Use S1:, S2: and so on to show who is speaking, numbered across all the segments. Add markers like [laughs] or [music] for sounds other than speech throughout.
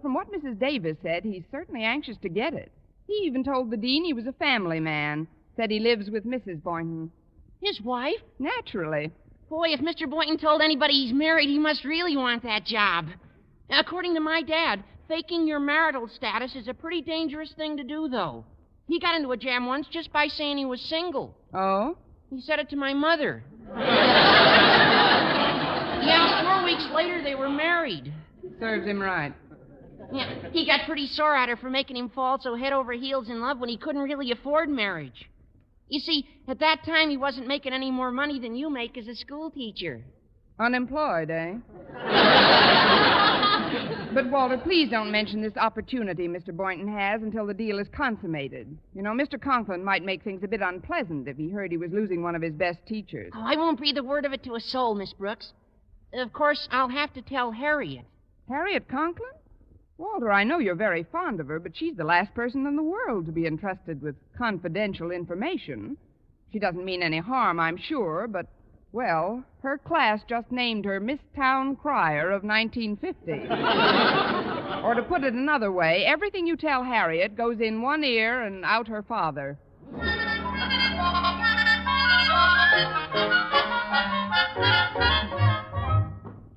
S1: From what Mrs. Davis said, he's certainly anxious to get it. He even told the dean he was a family man, said he lives with Mrs. Boynton.
S2: His wife?
S1: Naturally.
S2: Boy, if Mr. Boynton told anybody he's married, he must really want that job. According to my dad, faking your marital status is a pretty dangerous thing to do, though. He got into a jam once just by saying he was single.
S1: Oh?
S2: He said it to my mother. [laughs] yeah, four weeks later, they were married.
S1: Serves him right.
S2: Yeah, he got pretty sore at her for making him fall so head over heels in love when he couldn't really afford marriage. You see, at that time he wasn't making any more money than you make as a school teacher.
S1: Unemployed, eh? [laughs] but, Walter, please don't mention this opportunity Mr. Boynton has until the deal is consummated. You know, Mr. Conklin might make things a bit unpleasant if he heard he was losing one of his best teachers.
S2: Oh, I won't breathe a word of it to a soul, Miss Brooks. Of course, I'll have to tell Harriet.
S1: Harriet Conklin? Walter, I know you're very fond of her, but she's the last person in the world to be entrusted with confidential information. She doesn't mean any harm, I'm sure, but, well, her class just named her Miss Town Crier of 1950. or to put it another way, everything you tell Harriet goes in one ear and out her father.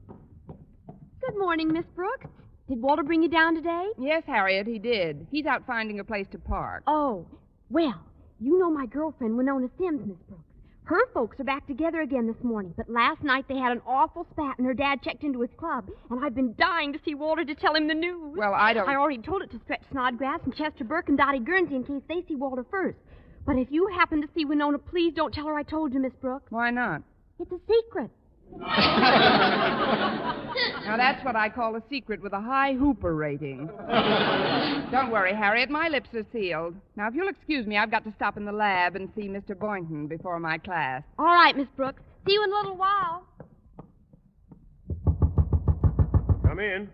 S3: Good morning, Miss Brooks. Did Walter bring you down today?
S1: Yes, Harriet, he did. He's out finding a place to park.
S3: Oh, well, you know my girlfriend, Winona Sims, Miss Brooks. Her folks are back together again this morning, but last night they had an awful spat, and her dad checked into his club, and I've been dying to see Walter to tell him the news.
S1: Well, I don't.
S3: Oh, I already told it to Stretch Snodgrass and Chester Burke and Dottie Guernsey in case they see Walter first. But if you happen to see Winona, please don't tell her I told you, Miss Brooks.
S1: Why not?
S3: It's a secret.
S1: Now, that's what I call a secret with a high Hooper rating. Don't worry, Harriet. My lips are sealed. Now, if you'll excuse me, I've got to stop in the lab and see Mr. Boynton before my class.
S3: All right, Miss Brooks. See you in a little while.
S4: Come in.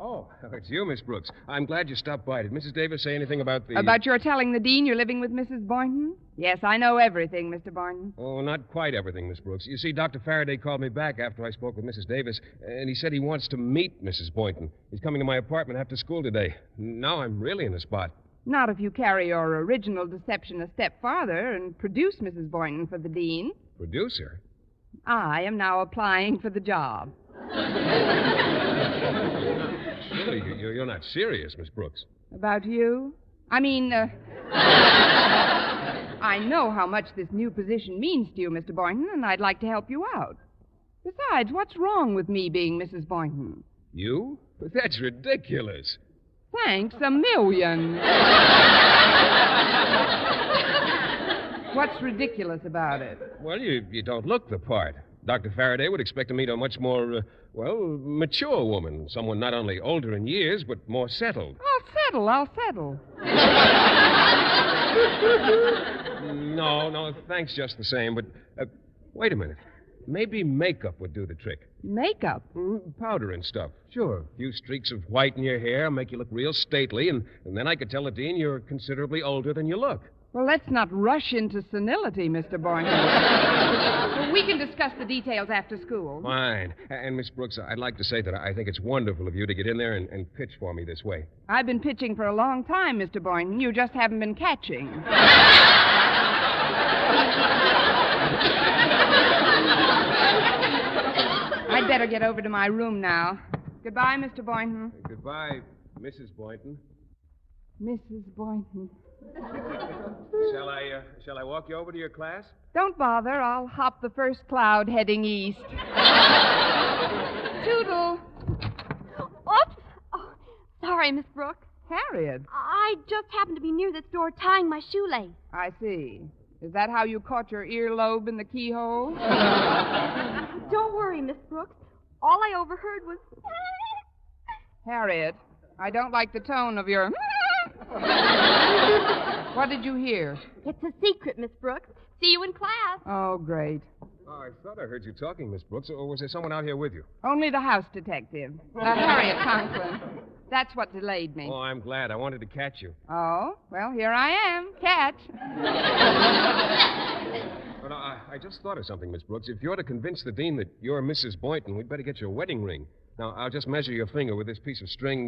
S5: Oh, [laughs] it's you, Miss Brooks. I'm glad you stopped by. Did Mrs. Davis say anything about the.
S1: About your telling the dean you're living with Mrs. Boynton? Yes, I know everything, Mr. Boynton.
S5: Oh, not quite everything, Miss Brooks. You see, Dr. Faraday called me back after I spoke with Mrs. Davis, and he said he wants to meet Mrs. Boynton. He's coming to my apartment after school today. Now I'm really in a spot.
S1: Not if you carry your original deception a step farther and produce Mrs. Boynton for the dean.
S5: Producer?
S1: I am now applying for the job.
S5: Surely you- you- you're not serious, Miss Brooks.
S1: About you? I mean, uh, I know how much this new position means to you, Mr. Boynton, and I'd like to help you out. Besides, what's wrong with me being Mrs. Boynton?
S5: You? [laughs] That's ridiculous.
S1: Thanks a million. what's ridiculous about it?
S5: Well, you, you don't look the part. Dr. Faraday would expect to meet a much more, uh, well, mature woman. Someone not only older in years, but more settled.
S1: I'll settle, I'll settle.
S5: No, no, thanks just the same, but uh, wait a minute. Maybe makeup would do the trick.
S1: Makeup?
S5: Mm, Powder and stuff. Sure. A few streaks of white in your hair make you look real stately, and, and then I could tell the dean you're considerably older than you look.
S1: Well, let's not rush into senility, Mr. Boynton. we can discuss the details after school.
S5: Fine. A- And, Miss Brooks, I'd like to say that I think it's wonderful of you to get in there and, and pitch for me this way.
S1: I've been pitching for a long time, Mr. Boynton. You just haven't been catching. I'd better get over to my room now. Goodbye, Mr. Boynton.
S5: Goodbye, Mrs. Boynton.
S1: Mrs. Boynton.
S5: Shall I, uh, shall I walk you over to your class?
S1: Don't bother. I'll hop the first cloud heading east. Toodle.
S3: Oops. Oh, sorry, Miss Brooks.
S1: Harriet.
S3: I just happened to be near this door tying my shoelace.
S1: I see. Is that how you caught your earlobe in the keyhole?
S3: Don't worry, Miss Brooks. All I overheard was.
S1: Harriet, I don't like the tone of [laughs] your. what did you hear?
S3: It's a secret, Miss Brooks. See you in class.
S1: Oh, great.
S5: Oh, I thought I heard you talking, Miss Brooks, or was there someone out here with you?
S1: Only the house detective. Uh, Harriet Conklin. That's what delayed me.
S5: Oh, I'm glad. I wanted to catch you.
S1: Oh, well, here I am. Catch.
S5: Well, I, I just thought of something, Miss Brooks. If you're to convince the dean that you're Mrs. Boynton, we'd better get your wedding ring. Now, I'll just measure your finger with this piece of string